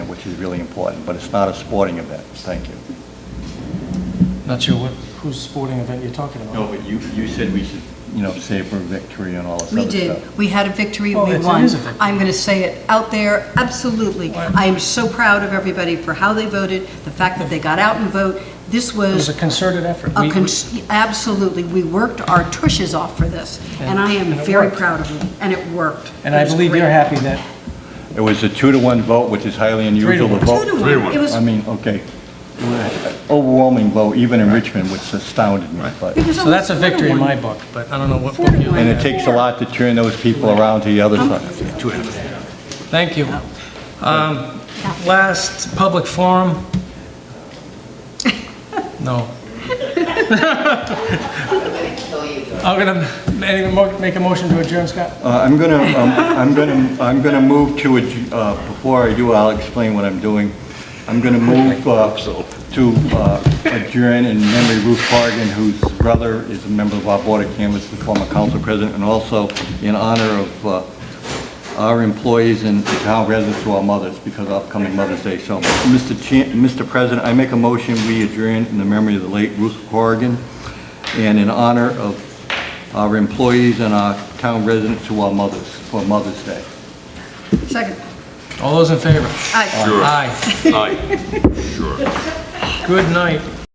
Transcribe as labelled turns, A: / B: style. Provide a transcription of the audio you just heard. A: which is really important, but it's not a sporting event. Thank you.
B: Not sure what, whose sporting event you're talking about.
A: No, but you, you said we should, you know, savor victory and all this
C: We
A: other stuff.
C: did. We had a victory,
B: Oh,
C: we
B: it's- it
C: won.
B: is a victory.
C: I'm going to say it out there, absolutely. I am so proud of everybody for how they voted, the fact that they got out and vote. This
B: It was a
C: was,
B: concerted effort.
C: a
B: We-
C: cons- absolutely, we worked our tushes off for this, and I am
B: And it
C: very
B: worked.
C: proud of you, and it worked.
B: And
C: It
B: I
C: was
B: believe you're
C: great.
B: happy that
A: It was a two-to-one vote, which is highly unusual to
B: one.
A: vote.
C: Two to one. It was,
A: I mean, okay, overwhelming vote, even in Richmond, which astounded me, but,
C: it was
B: So that's a
C: almost
B: victory in
C: four to
B: my
C: one.
B: book, but I don't know what.
C: Four to one.
A: and it takes a lot to turn those people around to the other side.
B: Thank you. Um, Last public forum? No. I'm going to make a motion to adjourn, Scott.
A: Uh, I'm gonna, um, I'm gonna, I'm gonna move to, adj- uh, before I do, I'll explain what I'm doing. I'm gonna move uh, to uh, adjourn in memory of Ruth Corrigan, whose brother is a member of our Board of Canvas, the former council president, and also in honor of uh, our employees and the town residents who are mothers, because of upcoming Mother's Day. So, Mr. Cha- Mr. President, I make a motion, we adjourn in the memory of the late Ruth Corrigan, and in honor of our employees and our town residents who are mothers, for Mother's Day.
C: Second.
B: All those in favor?
C: Aye.
B: Aye.
D: Aye, sure.
B: Good night.